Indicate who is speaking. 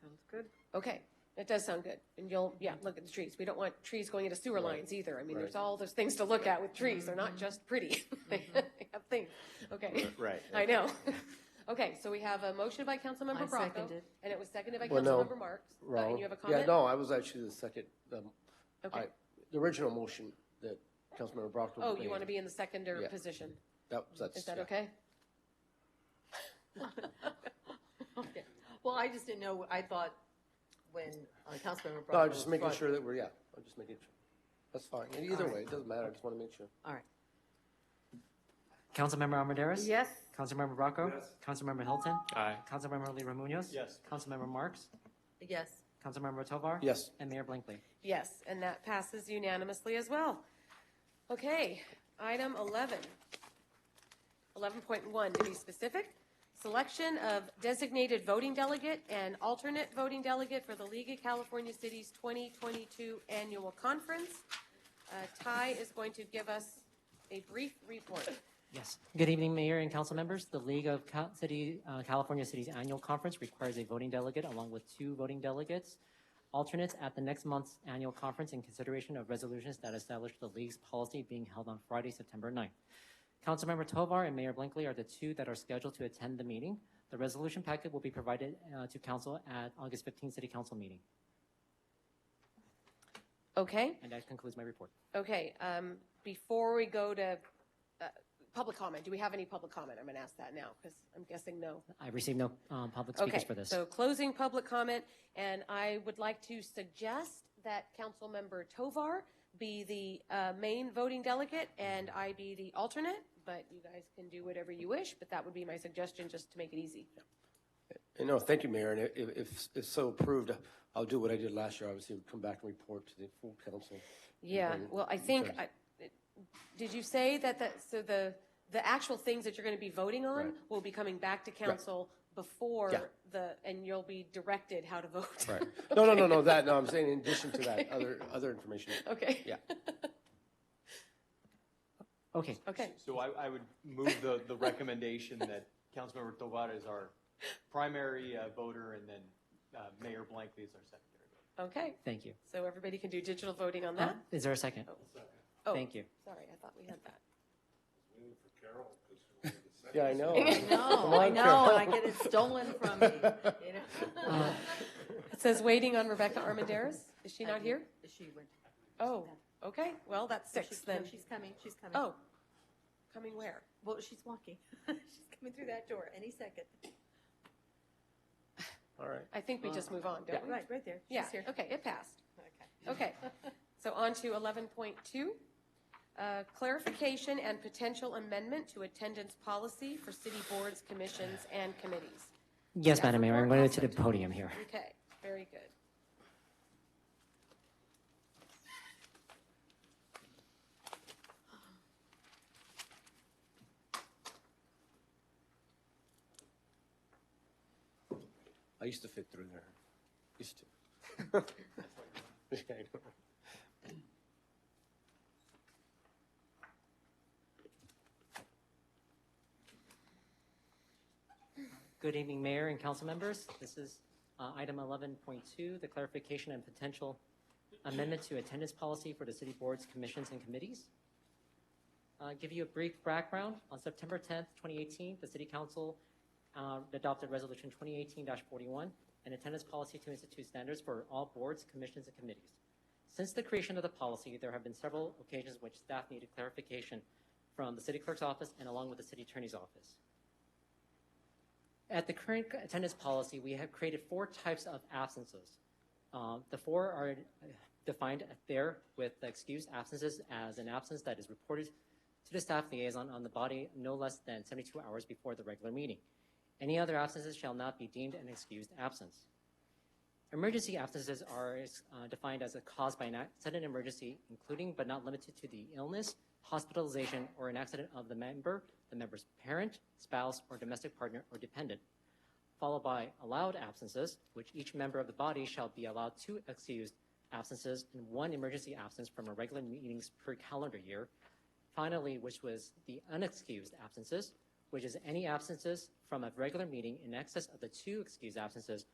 Speaker 1: Sounds good.
Speaker 2: Okay, that does sound good. And you'll, yeah, look at the trees. We don't want trees going into sewer lines either. I mean, there's
Speaker 3: Right.
Speaker 2: all those things to look at with trees. They're
Speaker 4: Mm-hmm.
Speaker 2: not just pretty. They have things. Okay,
Speaker 3: Right.
Speaker 2: I know. Okay, so we have a motion by Councilmember
Speaker 4: I
Speaker 2: Bracco,
Speaker 4: seconded.
Speaker 2: and it was seconded by
Speaker 3: Well, no.
Speaker 2: Councilmember Marks. Uh,
Speaker 3: Wrong.
Speaker 2: And you have a comment?
Speaker 3: Yeah, no, I was actually the second, um,
Speaker 2: Okay.
Speaker 3: I, the original motion that Councilmember Brockton
Speaker 2: Oh,
Speaker 3: made.
Speaker 2: you want to be in the seconder
Speaker 3: Yeah.
Speaker 2: position?
Speaker 3: That, that's.
Speaker 2: Is that
Speaker 3: yeah.
Speaker 2: okay?
Speaker 4: Well, I just didn't know, I thought when uh, Councilmember Brocco.
Speaker 3: No, I'm just
Speaker 4: was
Speaker 3: making
Speaker 4: brought-
Speaker 3: sure that we're, yeah, I'm just making sure. That's fine. And Either
Speaker 4: All
Speaker 3: way,
Speaker 4: right.
Speaker 3: it doesn't matter. I just want to make sure.
Speaker 4: All right,
Speaker 5: Councilmember Armendariz?
Speaker 1: Yes.
Speaker 5: Councilmember Bracco?
Speaker 6: Yes.
Speaker 5: Councilmember Hilton?
Speaker 6: Aye.
Speaker 5: Councilmember Leaper Munoz?
Speaker 6: Yes.
Speaker 5: Councilmember Marks?
Speaker 4: yes,
Speaker 5: Councilmember Tovar?
Speaker 3: Yes.
Speaker 5: And Mayor Blankley.
Speaker 2: Yes, and that passes unanimously as well. Okay, item 11. 11.1, to be specific, selection of designated voting delegate and alternate voting delegate for the League of California Cities 2022 Annual Conference. Uh, Ty is going to give us a brief report.
Speaker 5: Yes. Good evening, Mayor and council members. The League of Cal- City, uh, California Cities Annual Conference requires a voting delegate along with two voting delegates, alternates at the next month's annual conference in consideration of resolutions that establish the league's policy being held on Friday, September 9th. Councilmember Tovar and Mayor Blankley are the two that are scheduled to attend the meeting. The resolution packet will be provided uh, to council at August 15th City Council meeting.
Speaker 2: Okay?
Speaker 5: And that concludes my report.
Speaker 2: Okay, um, before we go to, uh, public comment, do we have any public comment? I'm gonna ask that now, because I'm guessing no.
Speaker 5: I received no um, public
Speaker 2: Okay,
Speaker 5: speakers for this.
Speaker 2: so closing public comment, and I would like to suggest that Councilmember Tovar be the uh, main voting delegate and I be the alternate, but you guys can do whatever you wish, but that would be my suggestion, just to make it easy.
Speaker 3: And no, thank you, Mayor. And if, if, if so approved, I'll do what I did last year. Obviously, come back and report to the full council.
Speaker 2: Yeah,
Speaker 3: And-
Speaker 2: well, I think, I- did you say that, the- so the, the actual things that you're going to be voting on
Speaker 3: Right.
Speaker 2: will be coming back to council before
Speaker 3: Yeah.
Speaker 2: the, and you'll be directed how to vote?
Speaker 3: Right. No, no, no, no, that, no, I'm saying in addition to that, other, other information.
Speaker 2: Okay.
Speaker 3: Yeah.
Speaker 5: Okay.
Speaker 2: Okay,
Speaker 6: So I, I would move the, the recommendation that Councilmember Tovar is our primary uh, voter and then uh, Mayor Blankley is our secondary voter.
Speaker 2: okay.
Speaker 5: Thank you.
Speaker 2: So everybody can do digital voting on that?
Speaker 5: Is there a second?
Speaker 2: Oh,
Speaker 5: Thank you.
Speaker 2: Sorry, I thought we had that.
Speaker 3: Yeah, I know. Come
Speaker 4: no, I
Speaker 3: on,
Speaker 4: know, and I get it stolen from me, you know?
Speaker 3: Uh,
Speaker 2: It says waiting on Rebecca Armandares. Is she not here?
Speaker 4: She went.
Speaker 2: Oh, okay, well, that's
Speaker 4: she-
Speaker 2: six
Speaker 4: no,
Speaker 2: then.
Speaker 4: She's coming, she's coming.
Speaker 2: Oh, coming where?
Speaker 4: Well, she's walking. She's coming through that door any second.
Speaker 3: All right.
Speaker 2: I think we just
Speaker 5: Uh,
Speaker 2: move on, don't we?
Speaker 4: Right, right there.
Speaker 2: Yeah,
Speaker 4: She's here.
Speaker 2: okay, it passed.
Speaker 4: Okay.
Speaker 2: Okay, so on to 11.2, uh, clarification and potential amendment to attendance policy for city boards, commissions, and committees.
Speaker 5: Yes,
Speaker 2: Staff
Speaker 5: Madam Mayor, I'm
Speaker 2: report,
Speaker 5: going to the
Speaker 2: Councilman.
Speaker 5: podium here.
Speaker 2: Okay, very good.
Speaker 3: I used to fit through there. Used to. Yeah, I know.
Speaker 5: Good evening, Mayor and council members. This is uh, item 11.2, the clarification and potential amendment to attendance policy for the city boards, commissions, and committees. Uh, Give you a brief background. On September 10th, 2018, the city council uh, adopted Resolution 2018-41, an attendance policy to institute standards for all boards, commissions, and committees. Since the creation of the policy, there have been several occasions which staff needed clarification from the city clerk's office and along with the city attorney's office. At the current attendance policy, we have created four types of absences. Um, The four are uh, defined there with the excused absences as an absence that is reported to the staff liaison on the body no less than 72 hours before the regular meeting. Any other absences shall not be deemed an excused absence. Emergency absences are uh, defined as a cause by an ac- sudden emergency, including but not limited to the illness, hospitalization, or an accident of the member, the member's parent, spouse, or domestic partner or dependent, followed by allowed absences, which each member of the body shall be allowed two excused absences and one emergency absence from our regular meetings per calendar year. Finally, which was the unexcused absences, which is any absences from a regular meeting in excess of the two excused absences